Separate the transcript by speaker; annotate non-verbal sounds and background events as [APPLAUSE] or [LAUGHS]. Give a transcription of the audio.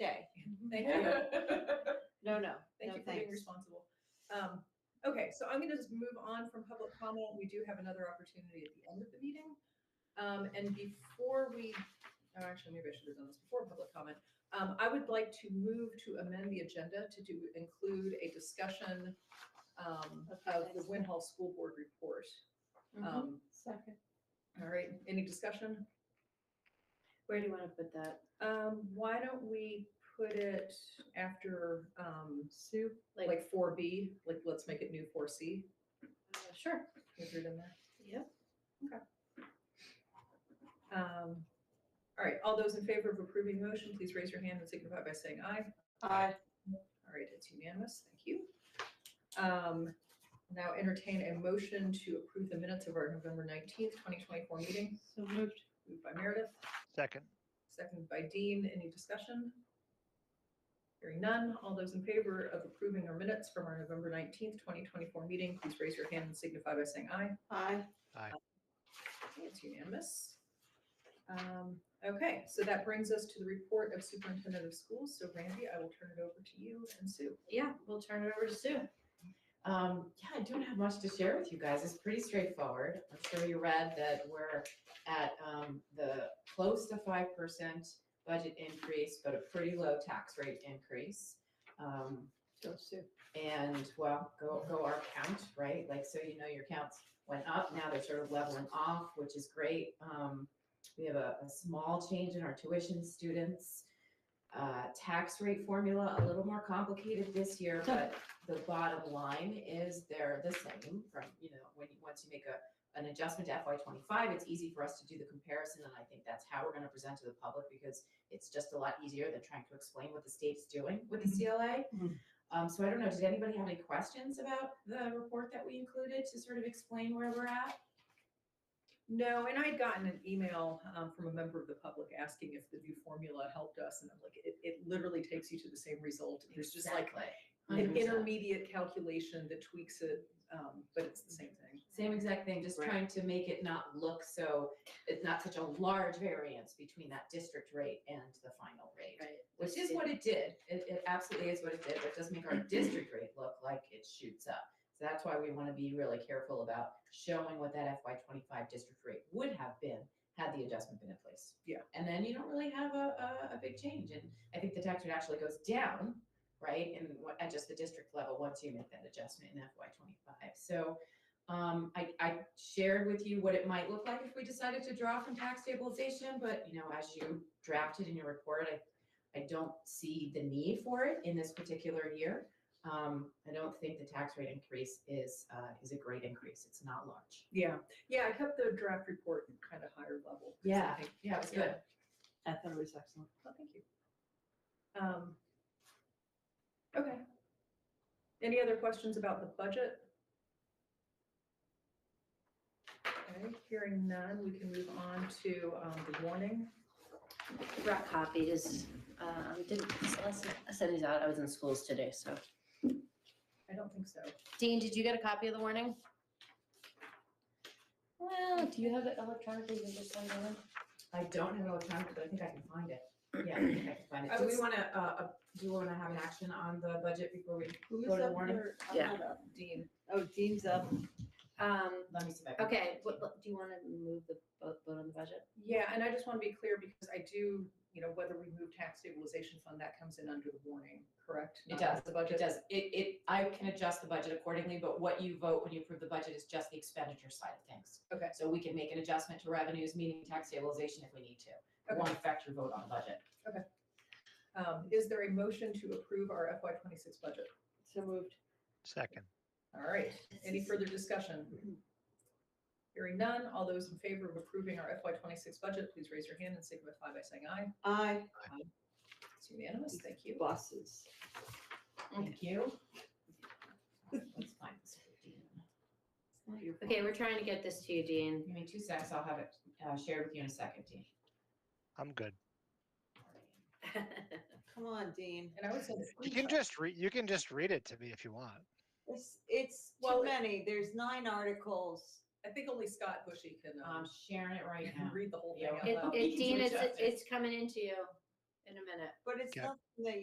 Speaker 1: Mm-hmm.
Speaker 2: Thank
Speaker 3: [LAUGHS]
Speaker 2: you.
Speaker 3: No, no,
Speaker 2: Thank
Speaker 3: no,
Speaker 2: you for being
Speaker 3: thanks.
Speaker 2: responsible. Um, okay, so I'm going to just move on from public comment. We do have another opportunity at the end of the meeting. Um, and before we, oh, actually, maybe I should have done this before public comment. Um, I would like to move to amend the agenda to do, include a discussion um,
Speaker 3: Of the
Speaker 2: of the
Speaker 3: next Mm-hmm.
Speaker 2: Win Hall School Board report. Um,
Speaker 1: Second.
Speaker 2: all right, any discussion?
Speaker 3: Where do you want to put that?
Speaker 2: Um, why don't we put it after, um,
Speaker 1: Sue?
Speaker 2: like four B, like let's make it new four C.
Speaker 3: uh, Sure.
Speaker 2: Is it in there?
Speaker 3: Yep.
Speaker 2: Um, All right, all those in favor of approving the motion, please raise your hand and signify by saying aye.
Speaker 1: Aye.
Speaker 2: All right, it's unanimous, thank you. Um, Now entertain a motion to approve the minutes of our November 19th, 2024 meeting,
Speaker 1: So moved.
Speaker 2: moved by Meredith,
Speaker 4: Second,
Speaker 2: seconded by Dean. Any discussion? Hearing none, all those in favor of approving our minutes from our November 19th, 2024 meeting, please raise your hand and signify by saying aye.
Speaker 1: Aye.
Speaker 2: Okay, It's unanimous. Um, Okay, so that brings us to the report of superintendent of schools. So Randy, I will turn it over to you and Sue.
Speaker 3: Yeah, we'll turn it over to Sue.
Speaker 5: Um, yeah, I don't have much to share with you guys. It's pretty straightforward. I'm sure you read that we're at, um, the close to five percent budget increase, but a pretty low tax rate increase. Um,
Speaker 1: So Sue.
Speaker 5: and well, go, go our count, right? Like, so you know your counts went up. Now they're sort of leveling off, which is great. Um, we have a, a small change in our tuition students. Uh, tax rate formula, a little more complicated this year, but the bottom line is they're the same from, you know, when you, once you make a, an adjustment to FY twenty-five, it's easy for us to do the comparison, and I think that's how we're gonna present to the public because it's just a lot easier than trying to explain what the state's doing with the CLA.
Speaker 1: Mhm.
Speaker 5: Um, so I don't know, did anybody have any questions about the report that we included to sort of explain where we're at?
Speaker 2: No, and I had gotten an email um, from a member of the public asking if the new formula helped us. And I'm like, it, it literally takes you to the same result. There's just like an
Speaker 5: 100%.
Speaker 2: intermediate calculation that tweaks it, um, but it's the same thing.
Speaker 5: Same exact thing, just
Speaker 3: Right.
Speaker 5: trying to make it not look so, it's not such a large variance between that district rate and the final rate.
Speaker 3: Right.
Speaker 5: Which is what it did, it, it absolutely is what it did, but it does make our district rate look like it shoots up. So that's why we wanna be really careful about showing what that FY twenty-five district rate would have been had the adjustment been in place.
Speaker 2: Yeah.
Speaker 5: And then you don't really have a, a, a big change, and I think the tax rate actually goes down, right? And what, at just the district level, once you make that adjustment in FY twenty-five, so um, I, I shared with you what it might look like if we decided to draw from tax stabilization, but you know, as you drafted in your report, I, I don't see the need for it in this particular year. Um, I don't think the tax rate increase is, uh, is a great increase. It's not large.
Speaker 2: Yeah, yeah, I kept the draft report kind of higher level. 'cause I
Speaker 5: Yeah.
Speaker 2: think-
Speaker 5: Yeah, it was good.
Speaker 1: I thought it was excellent.
Speaker 2: Well, Oh, thank you. Um, Okay. Any other questions about the budget? Okay, hearing none, we can move on to um, the warning.
Speaker 6: Brought copies. Um, didn't, I sent I sent these out. I was in schools today, so.
Speaker 2: I don't think so.
Speaker 6: Dean, did you get a copy of the warning? Well, do you have it electronically? You can just send it in.
Speaker 5: I don't have an electronic, but I think I can find it. Yeah, I think I can
Speaker 2: [CLEARS THROAT]
Speaker 5: find it.
Speaker 2: Oh,
Speaker 5: Do we wanna, uh, uh, do we wanna have an action on the budget before we,
Speaker 1: Who
Speaker 5: Go to warning.
Speaker 1: there? I'm
Speaker 6: Yeah.
Speaker 1: not up.
Speaker 2: Dean,
Speaker 1: Oh, Dean's up.
Speaker 6: Um,
Speaker 5: let me see if I can.
Speaker 6: okay, what- what- do you want to move the vote, vote on the budget?
Speaker 2: yeah, and I just want to be clear because I do, you know, whether we move tax stabilization fund, that comes in under the warning, correct?
Speaker 5: It does,
Speaker 2: The
Speaker 5: It
Speaker 2: budget.
Speaker 5: does, it, it, I can adjust the budget accordingly, but what you vote when you approve the budget is just the expenditure side of things.
Speaker 2: Okay.
Speaker 5: So we can make an adjustment to revenues, meaning tax stabilization if we need to. It
Speaker 2: Okay.
Speaker 5: Won't affect your vote on budget.
Speaker 2: Um, Is there a motion to approve our FY twenty-six budget?
Speaker 1: So moved.
Speaker 4: second,
Speaker 2: All right, any further discussion? Hearing none, all those in favor of approving our FY twenty-six budget, please raise your hand and signify by saying aye.
Speaker 1: Aye.
Speaker 2: It's unanimous, thank you.
Speaker 1: Buses.
Speaker 5: Thank you. Let's find this. for Dean. It's not your fault.
Speaker 6: Okay, we're trying to get this to you, Dean. [LAUGHS]
Speaker 5: Give me two seconds, I'll have it, uh, shared with you in a second, Dean.
Speaker 4: I'm good.
Speaker 1: Come on, Dean.
Speaker 2: And I would say. the
Speaker 4: You can just read, you can just read it to me if you want.
Speaker 1: It's, it's
Speaker 2: Well,
Speaker 1: too many. There's nine articles.
Speaker 2: I think only Scott Bushy can,
Speaker 5: I'm
Speaker 2: um,
Speaker 5: sharing it
Speaker 2: [LAUGHS]
Speaker 5: right now.
Speaker 2: read the whole thing
Speaker 5: Yeah.
Speaker 2: out
Speaker 6: It,
Speaker 2: loud.
Speaker 6: it, Dean, it's,
Speaker 5: Adjust it.
Speaker 6: it's coming into you in a minute.
Speaker 1: But it's
Speaker 4: Yeah.
Speaker 1: nothing that